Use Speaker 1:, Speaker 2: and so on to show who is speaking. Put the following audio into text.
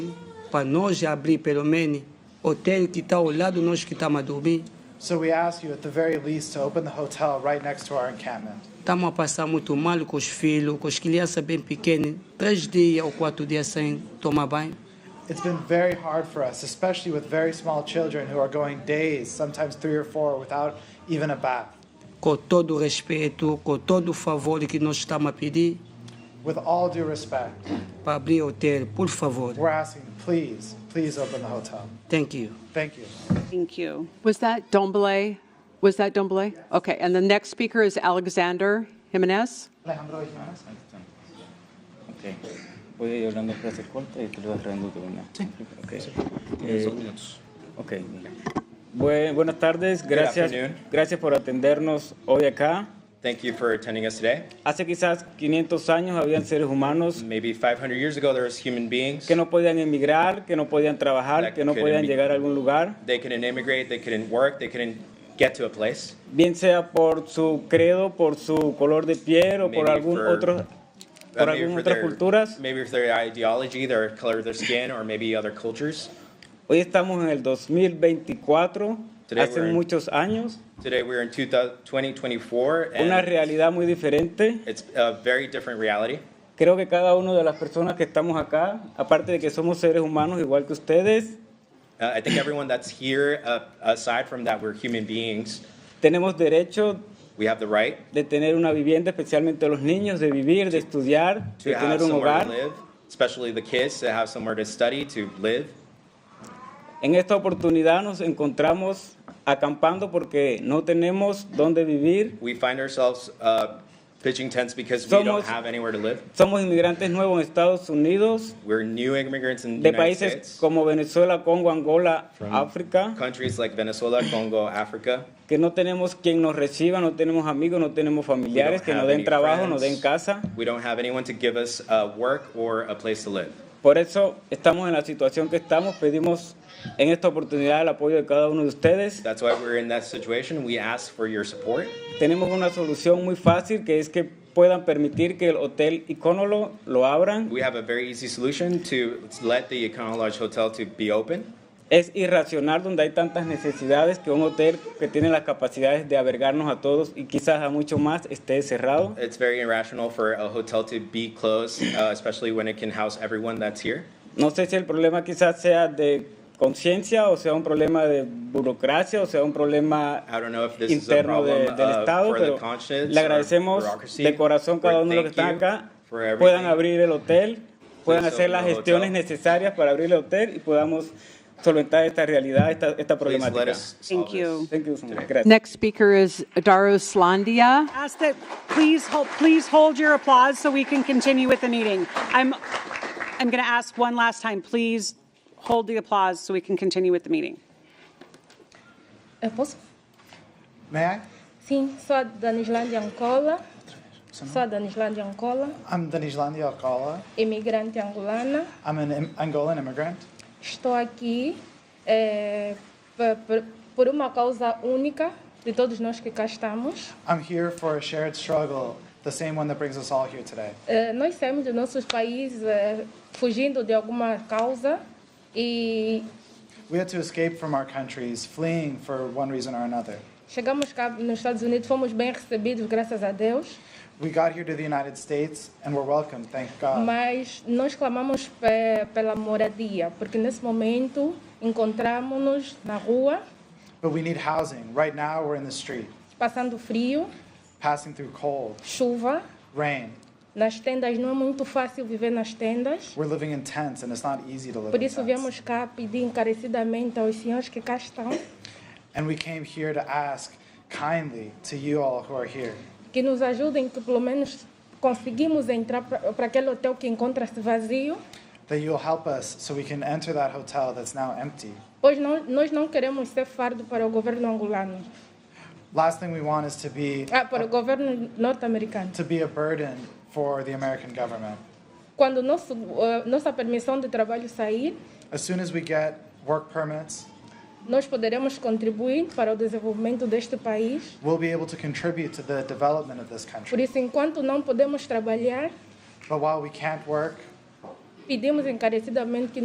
Speaker 1: para nós abrir pelo menos hotel que está ao lado nós que tá estamos a dormir.
Speaker 2: So we ask you at the very least to open the hotel right next to our encampment.
Speaker 1: Estamos a passar muito mal com os filhos, com as crianças bem pequenas, três dias ou quatro dias sem tomar banho.
Speaker 2: It's been very hard for us, especially with very small children who are going days, sometimes three or four, without even a bath.
Speaker 1: Com todo o respeito, com todo o favor que nós estamos a pedir
Speaker 2: With all due respect,
Speaker 1: para abrir hotel, por favor.
Speaker 2: we're asking, please, please open the hotel.
Speaker 1: Thank you.
Speaker 2: Thank you.
Speaker 3: Thank you.
Speaker 4: Was that Dombele? Was that Dombele? Okay, and the next speaker is Alexander Jimenez.
Speaker 2: Alejandro Jimenez.
Speaker 5: Ok. Voy a ir hablando frase corta y te lo vas trayendo tú, ¿no? Sí. Ok. Eh, ok, mira. Bue- buenas tardes, gracias,
Speaker 6: afternoon.
Speaker 5: gracias por atendernos hoy acá.
Speaker 6: Thank you for attending us today.
Speaker 5: Hace quizás 500 años habían seres humanos
Speaker 6: Maybe 500 years ago, there was human beings.
Speaker 5: que no podían emigrar, que no podían trabajar, que no podían llegar a algún lugar,
Speaker 6: They couldn't immigrate. They couldn't work. They couldn't get to a place.
Speaker 5: bien sea por su credo, por su color de piel o por
Speaker 6: Maybe
Speaker 5: algún
Speaker 6: for-
Speaker 5: otro,
Speaker 6: Uh,
Speaker 5: por
Speaker 6: maybe
Speaker 5: algunas
Speaker 6: for
Speaker 5: otras
Speaker 6: their-
Speaker 5: culturas.
Speaker 6: Maybe for their ideology, their color of their skin, or maybe other cultures.
Speaker 5: Hoy estamos en el 2024,
Speaker 6: Today
Speaker 5: hace
Speaker 6: we're in-
Speaker 5: muchos años,
Speaker 6: Today, we're in 2000 2024,
Speaker 5: una
Speaker 6: and
Speaker 5: realidad muy diferente.
Speaker 6: it's a very different reality.
Speaker 5: Creo que cada una de las personas que estamos acá, aparte de que somos seres humanos igual que ustedes,
Speaker 6: Uh, I think everyone that's here, uh, aside from that, we're human beings.
Speaker 5: tenemos derecho
Speaker 6: We have the right
Speaker 5: de tener una vivienda, especialmente los niños, de vivir, de estudiar,
Speaker 6: to
Speaker 5: de
Speaker 6: have
Speaker 5: tener un
Speaker 6: somewhere
Speaker 5: hogar.
Speaker 6: to live, especially the kids, to have somewhere to study, to live.
Speaker 5: En esta oportunidad nos encontramos acampando porque no tenemos dónde vivir.
Speaker 6: We find ourselves uh, pitching tents because we
Speaker 5: Somos-
Speaker 6: don't have anywhere to live.
Speaker 5: Somos inmigrantes nuevos en Estados Unidos,
Speaker 6: We're new immigrants in the
Speaker 5: de
Speaker 6: United
Speaker 5: países
Speaker 6: States,
Speaker 5: como Venezuela, Congo, Angola, África,
Speaker 6: countries like Venezuela, Congo, Africa.
Speaker 5: que no tenemos quien nos reciba, no tenemos amigos, no tenemos
Speaker 6: We don't
Speaker 5: familiares que nos
Speaker 6: have
Speaker 5: den
Speaker 6: any
Speaker 5: trabajo,
Speaker 6: friends.
Speaker 5: nos den casa.
Speaker 6: We don't have anyone to give us uh, work or a place to live.
Speaker 5: Por eso estamos en la situación que estamos. Pedimos en esta oportunidad el apoyo de cada uno de ustedes.
Speaker 6: That's why we're in that situation. We ask for your support.
Speaker 5: Tenemos una solución muy fácil que es que puedan permitir que el Hotel Iconolo lo abran.
Speaker 6: We have a very easy solution to let the Econo Lodge Hotel to be open.
Speaker 5: Es irracional donde hay tantas necesidades que un hotel que tiene las capacidades de albergarnos a todos y quizás a mucho más esté cerrado.
Speaker 6: It's very irrational for a hotel to be closed, uh, especially when it can house everyone that's here.
Speaker 5: No sé si el problema quizás sea de conciencia o sea un problema de burocracia o sea un problema
Speaker 6: I don't know if this
Speaker 5: interno
Speaker 6: is a
Speaker 5: de-
Speaker 6: problem,
Speaker 5: del
Speaker 6: uh,
Speaker 5: Estado,
Speaker 6: for the
Speaker 5: pero
Speaker 6: conscience
Speaker 5: le
Speaker 6: or
Speaker 5: agradecemos
Speaker 6: bureaucracy.
Speaker 5: de corazón cada
Speaker 6: But
Speaker 5: uno de los que
Speaker 6: thank
Speaker 5: están
Speaker 6: you
Speaker 5: acá,
Speaker 6: for everything.
Speaker 5: puedan abrir el hotel, puedan
Speaker 6: Please
Speaker 5: hacer
Speaker 6: open
Speaker 5: las
Speaker 6: the
Speaker 5: gestiones
Speaker 6: hotel.
Speaker 5: necesarias para abrir el hotel y podamos solventar esta realidad, esta, esta
Speaker 6: Please let
Speaker 5: problemática.
Speaker 6: us solve
Speaker 3: Thank you.
Speaker 5: Thank you so much.
Speaker 6: today.
Speaker 5: Gracias.
Speaker 4: Next speaker is Daros Landia.
Speaker 3: Ask that, please hold, please hold your applause so we can continue with the meeting. I'm, I'm going to ask one last time, please hold the applause so we can continue with the meeting.
Speaker 7: Eu posso?
Speaker 2: May I?
Speaker 7: Sim, sou a Danislândia Ancola. Sou a Danislândia Ancola,
Speaker 2: I'm Denislandi Alcala.
Speaker 7: imigrante angolana.
Speaker 2: I'm an Im- Angolan immigrant.
Speaker 7: Estou aqui eh, p- p- por uma causa única de todos nós que cá estamos.
Speaker 2: I'm here for a shared struggle, the same one that brings us all here today.
Speaker 7: Eh, nós saímos dos nossos países eh, fugindo de alguma causa e
Speaker 2: We had to escape from our countries, fleeing for one reason or another.
Speaker 7: chegamos cá nos Estados Unidos, fomos bem recebidos, graças a Deus.
Speaker 2: We got here to the United States and we're welcome, thank God.
Speaker 7: Mas nós clamamos pe- pela moradia, porque nesse momento encontramos-nos na rua,
Speaker 2: But we need housing. Right now, we're in the street,
Speaker 7: passando frio.
Speaker 2: passing through cold,
Speaker 7: chuva.
Speaker 2: rain.
Speaker 7: Nas tendas não é muito fácil viver nas tendas.
Speaker 2: We're living in tents and it's not easy to live
Speaker 7: Por
Speaker 2: in
Speaker 7: isso
Speaker 2: tents.
Speaker 7: viemos cá pedir encarecidamente aos senhores que cá estão
Speaker 2: And we came here to ask kindly to you all who are here
Speaker 7: que nos ajudem, que pelo menos conseguimos entrar para aquele hotel que encontra-se vazio,
Speaker 2: that you'll help us so we can enter that hotel that's now empty.
Speaker 7: pois não, nós não queremos ser fardo para o governo angolano,
Speaker 2: Last thing we want is to be
Speaker 7: ah, para o governo norte-americano.
Speaker 2: to be a burden for the American government.
Speaker 7: Quando nosso, eh, nossa permissão de trabalho sair,
Speaker 2: As soon as we get work permits,
Speaker 7: nós poderemos contribuir para o desenvolvimento deste país.
Speaker 2: we'll be able to contribute to the development of this
Speaker 7: Por
Speaker 2: country.
Speaker 7: isso, enquanto não podemos trabalhar,
Speaker 2: But while we can't work,
Speaker 7: pedimos encarecidamente que